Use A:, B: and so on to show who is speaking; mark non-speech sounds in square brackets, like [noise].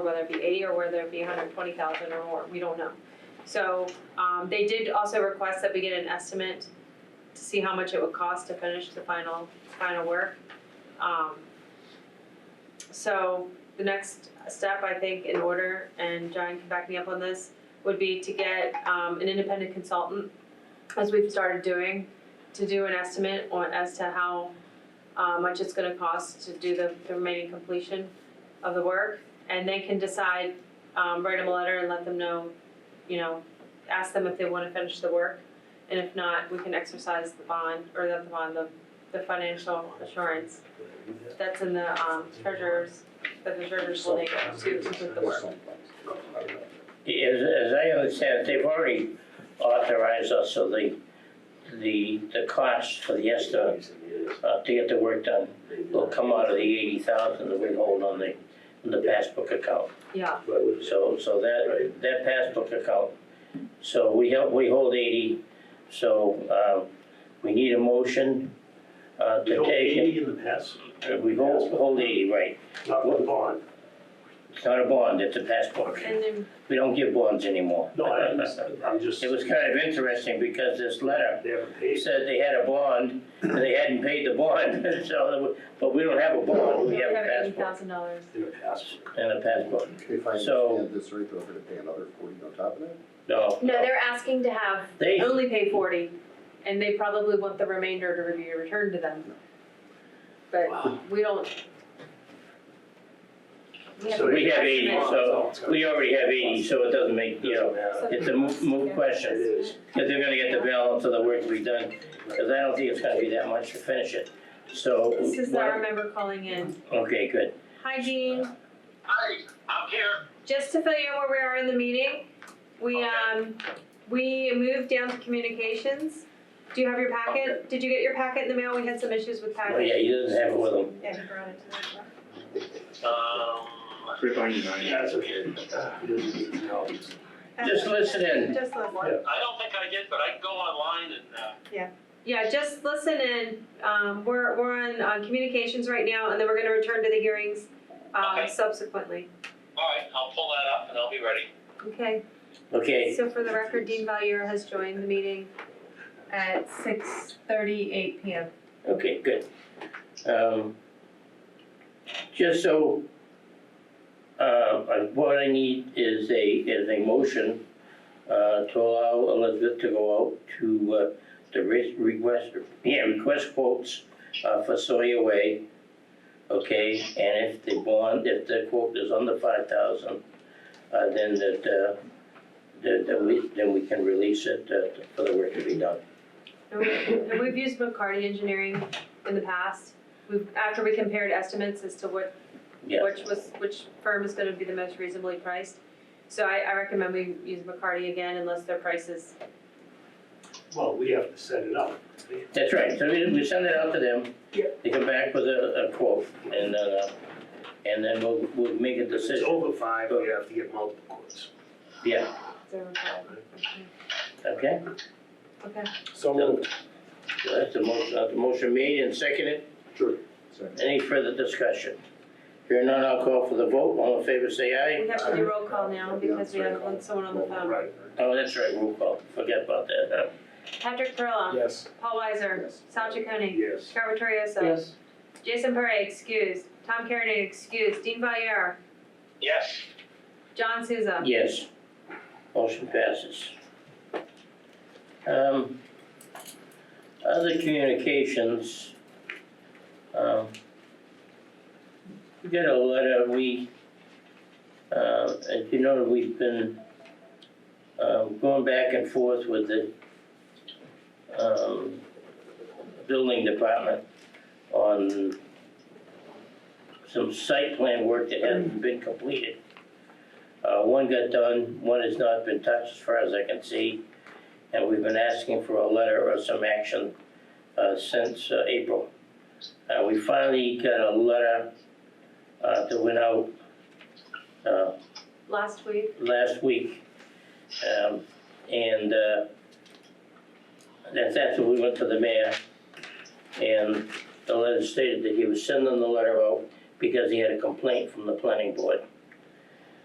A: whether it be eighty or whether it be hundred twenty thousand or more, we don't know. So, um, they did also request that we get an estimate to see how much it would cost to finish the final, final work. Um, so the next step, I think, in order, and John can back me up on this, would be to get, um, an independent consultant, as we've started doing, to do an estimate on, as to how, uh, much it's gonna cost to do the, the remaining completion of the work. And they can decide, um, write them a letter and let them know, you know, ask them if they wanna finish the work. And if not, we can exercise the bond, or not the bond, the, the financial assurance that's in the um treasurer's, that the treasurer's holding to complete the work.
B: As, as I understand, it, they've already authorized us of the, the, the cost for the ESTA, uh, to get the work done, will come out of the eighty thousand that we hold on the, on the passbook account.
A: Yeah,
B: So, so that, that passbook account, so we help, we hold eighty, so, uh, we need a motion, uh,
C: You
B: to
C: don't
B: take.
C: pay in the past,
B: it. We hold, hold eighty, right,
C: not the bond.
B: it's not a bond, it's a passbook,
A: and then,
B: we don't give bonds anymore.
C: No,
B: [laughs]
C: I understand, I'm just.
B: It was kind of interesting because this letter
C: They haven't paid.
B: said they had a bond and they hadn't paid the bond, [laughs] so, there was- but we don't have a bond, we
A: we
B: have
A: have
B: a
A: eighty
B: passport
A: thousand dollars.
C: In the past.
B: and a passport.
D: If I
B: So-
D: understand this right, though, we're gonna pay another forty on top of that?
B: No,
E: No, they're asking to have,
B: they,
A: Only pay forty, and they probably want the remainder to be returned to them.
C: Wow.
A: But we don't. We have.
C: So
B: we have eighty,
A: estimate.
B: so we already have eighty, so it doesn't make, you know,
C: Doesn't matter.
B: it's a moot, moot
C: It
B: question.
C: is.
B: Because they're gonna get the balance of the work to be done, because I don't think it's gonna be that much to finish it, so.
A: This is, I remember calling in,
B: Okay, good.
A: hi Dean,
F: Hi, I'm here.
A: just to fill you in where we are in the meeting, we
F: Okay.
A: um, we moved down to communications. Do you have your packet? Did you get your packet in the mail? We had some issues with
B: Oh,
A: packets.
B: yeah, he doesn't have it with him.
A: Yeah, he brought it to the-
F: Um,
C: Yeah, it's okay. It doesn't need to know.
B: Just listen
A: [laughs]
B: in.
A: Just listen.
F: I don't think I did, but I can go online and, uh,
A: Yeah, just listen in. Um, we're, we're on, on communications right now, and then we're gonna return to the hearings, um,
F: Okay.
A: subsequently.
F: all right, I'll pull that up and I'll be ready.
A: Okay,
B: Okay,
A: so for the record, Dean Valier has joined the meeting at six thirty-eight PM.
B: okay, good. Um, just so, uh, uh, what I need is a, is a motion, uh, to allow Elizabeth to go out to, uh, the re- request, yeah, request quotes, uh, for Sawyer Way. Okay, and if the bond, if the quote is under five thousand, uh, then that, uh, that, that we, then we can release it, uh, for the work to be done.
A: And we- and we've used McCarty Engineering in the past. We've, after we compared estimates as to what,
B: Yeah.
A: which was, which firm is gonna be the most reasonably priced. So I, I recommend we use McCarty again unless their prices,
C: Well, we have to set it up.
B: That's right, so we, we send it out to them. They come back with a, a quote, and, uh, and then we'll, we'll make a
C: If it's
B: decision.
C: over five, we have to get multiple quotes.
B: Yeah,
A: their,
B: okay,
A: okay.
D: So
B: moved. so that's the motion, that's the motion made and seconded, any further discussion? Hearing none, I'll call for the vote, all in favor say
A: We
B: aye.
A: have to do roll call now because we have someone on the phone.
C: Right.
B: Oh, that's right, roll call, forget about that, Uh, huh?
A: Patrick Perla.
D: Yes.
A: Paul Weiser.
D: Yes.
A: Sal Chaconi.
C: Yes.
A: Carver Torioso. Jason Parra, excused. Tom Carrigan, excused. Dean Valier.
F: Yes.
A: John Souza.
B: Yes. Motion passes. Um, other communications. Um, we got a letter, we, uh, as you know, we've been, um, going back and forth with the, um, building department on some site plan work that hasn't been completed. Uh, one got done, one has not been touched as far as I can see. And we've been asking for a letter or some action, uh, since, uh, April. Uh, we finally got a letter, uh, that went out, uh,
A: Last week.
B: last week. Um, and, uh, that's after we went to the mayor. And the letter stated that he was sending the letter out because he had a complaint from the planning board.